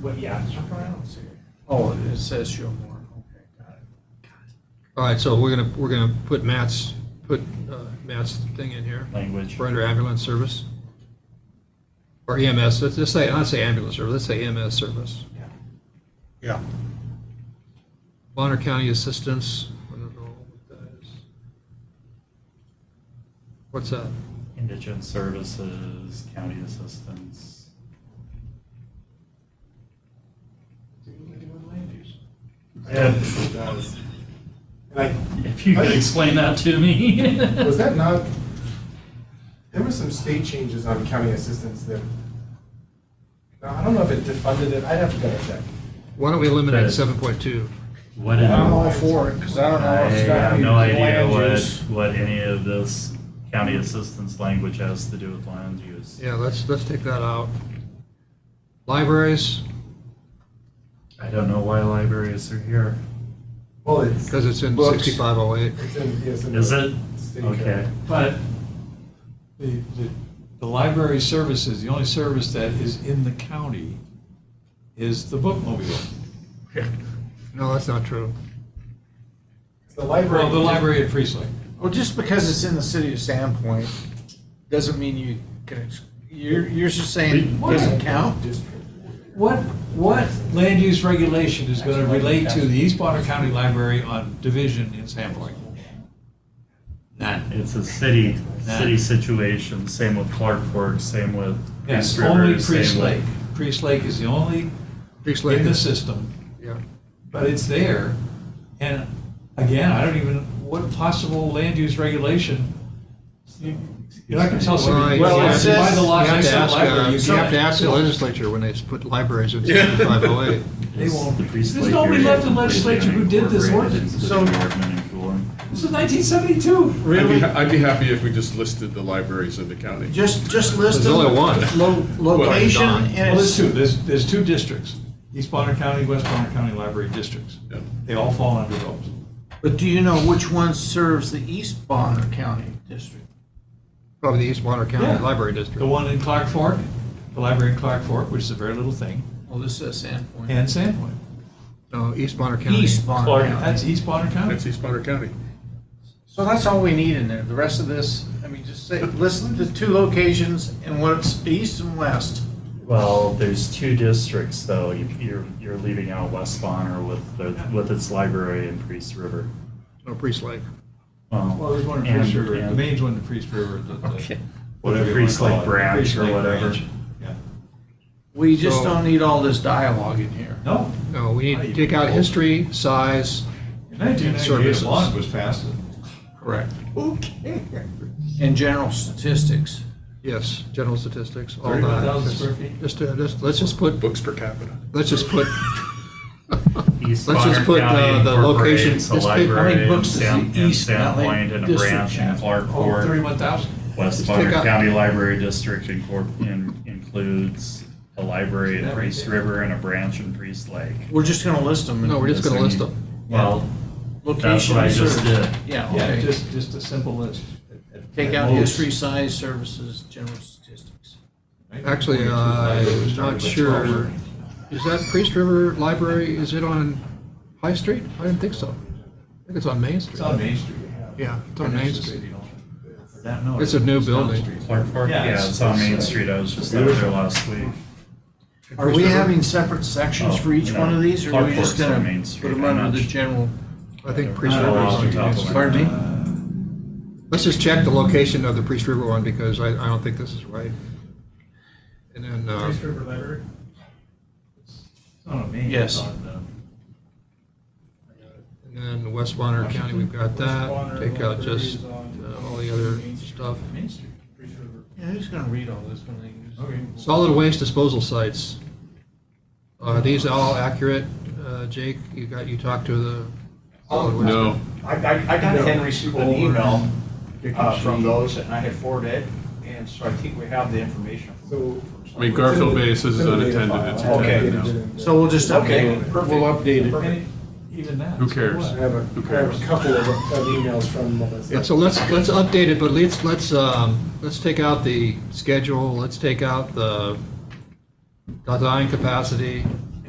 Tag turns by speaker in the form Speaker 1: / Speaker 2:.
Speaker 1: Web Yasser.
Speaker 2: Oh, it says Showmore, okay, got it.
Speaker 3: All right, so we're gonna, we're gonna put Matt's, put uh, Matt's thing in here.
Speaker 1: Language.
Speaker 3: For under ambulance service. Or EMS, let's just say, not say ambulance service, let's say EMS service.
Speaker 1: Yeah.
Speaker 2: Yeah.
Speaker 3: Bonner County assistance, I don't know what that is. What's that?
Speaker 1: Indigent services, county assistance.
Speaker 4: It does. And I,
Speaker 1: If you could explain that to me.
Speaker 4: was that not, there were some state changes on county assistance that, no, I don't know if it defunded it, I'd have to double check.
Speaker 3: Why don't we eliminate
Speaker 1: That-
Speaker 3: seven point two?
Speaker 1: What did?
Speaker 2: I'm all for it, because I don't know.
Speaker 1: I
Speaker 2: if it's got
Speaker 1: have
Speaker 2: any
Speaker 1: no idea
Speaker 2: land
Speaker 1: what,
Speaker 2: use.
Speaker 1: what any of this county assistance language has to do with land use.
Speaker 3: Yeah, let's, let's take that out. Libraries,
Speaker 1: I don't know why libraries are here.
Speaker 4: Well, it's,
Speaker 3: because it's in
Speaker 2: Books.
Speaker 3: sixty-five oh eight.
Speaker 4: it's in, yes. in
Speaker 1: Is
Speaker 4: the
Speaker 1: it?
Speaker 4: state
Speaker 1: Okay,
Speaker 4: code.
Speaker 1: but
Speaker 5: The, the, the library services, the only service that is in the county is the bookmobile.
Speaker 3: No, that's not true.
Speaker 4: It's The library.
Speaker 5: Well, the library at Priestley.
Speaker 2: Well, just because it's in the city of Sandpoint, doesn't mean you can, ex- you're, you're just saying it doesn't count?
Speaker 4: District.
Speaker 5: What, what land use regulation is going to relate to the East Bonner County Library on Division in Sandpoint? None.
Speaker 1: it's a city, city situation, same with Clark Fork, same with East
Speaker 5: Yes,
Speaker 1: River.
Speaker 5: only
Speaker 1: same
Speaker 5: Priest
Speaker 1: with-
Speaker 5: Lake. Priest Lake is the only
Speaker 3: Priest Lake
Speaker 5: in the
Speaker 3: is-
Speaker 5: system,
Speaker 3: Yeah.
Speaker 5: but it's there. And again, I don't even, what possible land use regulation? you- You're not going to tell somebody,
Speaker 2: Well,
Speaker 5: well,
Speaker 2: it
Speaker 5: if you buy
Speaker 2: says-
Speaker 5: the
Speaker 3: you
Speaker 5: lot
Speaker 3: have
Speaker 5: next
Speaker 3: to
Speaker 5: to the
Speaker 3: ask, uh,
Speaker 5: library, you
Speaker 3: you have to ask the
Speaker 5: can't.
Speaker 3: legislature when they put libraries in sixty-five oh eight.
Speaker 5: They won't.
Speaker 1: The Priest
Speaker 5: There's
Speaker 1: Lake
Speaker 5: nobody
Speaker 1: area
Speaker 5: left in
Speaker 1: completely
Speaker 5: legislature who did this
Speaker 1: unincorporated
Speaker 5: ordinance.
Speaker 1: into the
Speaker 2: So-
Speaker 1: Department of Coolum.
Speaker 5: This is 1972.
Speaker 6: I'd be, I'd be happy if we just listed the libraries in the county.
Speaker 2: Just, just list
Speaker 3: There's
Speaker 2: them.
Speaker 3: only one.
Speaker 2: Lo- Location
Speaker 3: Well, Don.
Speaker 2: and
Speaker 5: Well, there's
Speaker 2: it's,
Speaker 5: two, there's, there's two districts, East Bonner County, West Bonner County Library Districts.
Speaker 6: Yeah.
Speaker 5: They all fall under those.
Speaker 2: but do you know which one serves the East Bonner County District?
Speaker 3: Probably the East Bonner
Speaker 5: Yeah.
Speaker 3: County Library
Speaker 5: The
Speaker 3: District.
Speaker 5: one in Clark Fork, the library in Clark Fork, which is a very little thing,
Speaker 2: Well, this says Sandpoint.
Speaker 5: and Sandpoint.
Speaker 3: No, East Bonner County.
Speaker 2: East Bonner
Speaker 5: Clark,
Speaker 2: County.
Speaker 5: that's East Bonner County.
Speaker 6: That's East Bonner County.
Speaker 2: So that's all we need in there. The rest of this, I mean, just say, list the two locations and what's east and west.
Speaker 1: Well, there's two districts though. You- You're, you're leaving out West Bonner with, the- with its library and Priest River.
Speaker 3: No, Priest Lake.
Speaker 5: Well, there's one in
Speaker 1: and-
Speaker 5: Priest River, the
Speaker 1: and-
Speaker 5: main one in Priest River, the- the,
Speaker 3: Okay.
Speaker 5: whatever you want to
Speaker 1: Priest Lake
Speaker 5: call it.
Speaker 1: branch
Speaker 5: Priest
Speaker 1: or
Speaker 5: Lake
Speaker 1: whatever.
Speaker 5: branch. Yeah.
Speaker 2: We just
Speaker 3: So-
Speaker 2: don't need all this dialogue in here.
Speaker 5: No,
Speaker 3: No, we need to take out history, size.
Speaker 5: in 1998,
Speaker 3: Services.
Speaker 5: a law was passed.
Speaker 2: Oh, Correct. Okay. And general statistics.
Speaker 3: Yes, general statics, all that.
Speaker 5: 31,000 square feet?
Speaker 3: Just, uh, just, let's just put,
Speaker 6: Books per capita.
Speaker 3: let's just put,
Speaker 1: East
Speaker 3: Let's
Speaker 1: Bonner
Speaker 3: just put, uh,
Speaker 1: County
Speaker 3: the location-
Speaker 1: incorporates a
Speaker 3: just pick- how many
Speaker 1: library in
Speaker 2: books is the
Speaker 1: Sam- in
Speaker 2: East Valley
Speaker 1: Sandpoint and a
Speaker 2: District
Speaker 1: branch in
Speaker 2: have?
Speaker 1: Clark
Speaker 5: Oh,
Speaker 1: Fork.
Speaker 5: 31,000.
Speaker 1: West
Speaker 3: Just
Speaker 1: Bonner
Speaker 3: pick up-
Speaker 1: County Library District incorp- in- includes a library in
Speaker 5: That
Speaker 1: Priest
Speaker 5: right there.
Speaker 1: River and a branch in Priest Lake.
Speaker 2: We're just gonna list them. and-
Speaker 3: no, we're just going to list
Speaker 1: Listen.
Speaker 3: them.
Speaker 1: Well,
Speaker 2: Location.
Speaker 1: that's what I
Speaker 2: service.
Speaker 1: just did.
Speaker 2: Yeah,
Speaker 5: Yeah,
Speaker 2: okay.
Speaker 5: just, just a simple list.
Speaker 2: Take out history, size, services, general statistics.
Speaker 3: Actually, uh, I'm not sure. Is that Priest River Library, is it on High Street? I didn't think so. I think it's on Main Street.
Speaker 5: It's on Main Street.
Speaker 3: Yeah, it's on Main Street.
Speaker 5: That, no,
Speaker 3: It's a new
Speaker 5: down the
Speaker 3: building.
Speaker 5: street.
Speaker 1: Clark Fork,
Speaker 5: Yeah,
Speaker 1: yeah,
Speaker 5: it's-
Speaker 1: it's on Main
Speaker 5: it's, uh,
Speaker 1: Street. I was just out there last week.
Speaker 2: Are we having separate sections
Speaker 1: Oh,
Speaker 2: for each
Speaker 1: no.
Speaker 2: one of these, or are
Speaker 1: Clark
Speaker 2: we just
Speaker 1: Fork's on
Speaker 2: gonna
Speaker 1: Main
Speaker 2: put
Speaker 1: Street.
Speaker 2: them
Speaker 1: I'm
Speaker 2: under
Speaker 1: not
Speaker 2: the
Speaker 1: su-
Speaker 2: general?
Speaker 3: I think
Speaker 1: I
Speaker 3: Priest
Speaker 1: don't
Speaker 3: River
Speaker 1: know
Speaker 3: is
Speaker 1: off
Speaker 3: on
Speaker 1: the top
Speaker 3: Main
Speaker 1: of my
Speaker 3: Street.
Speaker 2: Pardon me?
Speaker 3: Let's just check the location of the Priest River one because I, I don't think this is right. And then, uh,
Speaker 1: Priest River Library?
Speaker 5: It's on a main.
Speaker 2: Yes.
Speaker 5: it's on
Speaker 3: and then West Bonner County, we've got that. Take out just uh, all the other stuff.
Speaker 5: the Main Street.
Speaker 2: Yeah, who's gonna read all this when they use?
Speaker 5: Okay.
Speaker 3: Solid waste disposal sites. Are these all accurate, Uh, Jake? You got, you talked to the solid waste?
Speaker 6: No,
Speaker 7: I, I, I got
Speaker 4: No.
Speaker 7: Henry's an email uh, from those, and I had forwarded it, and so I think we have the information.
Speaker 4: So.
Speaker 6: I mean, Garfield Bay says it's
Speaker 4: It's in the data
Speaker 6: unattended, it's
Speaker 4: file.
Speaker 7: Okay.
Speaker 6: attended now.
Speaker 2: So we'll just
Speaker 7: Okay,
Speaker 2: update it.
Speaker 7: perfect.
Speaker 2: We'll update it.
Speaker 7: Perfect.
Speaker 5: And Even that.
Speaker 6: Who
Speaker 5: so
Speaker 6: cares?
Speaker 4: I
Speaker 5: what?
Speaker 4: have a, I have a couple of of emails from Melissa.
Speaker 3: Yeah, so let's, let's update it, but let's, let's, um, let's take out the schedule, let's take out the design capacity,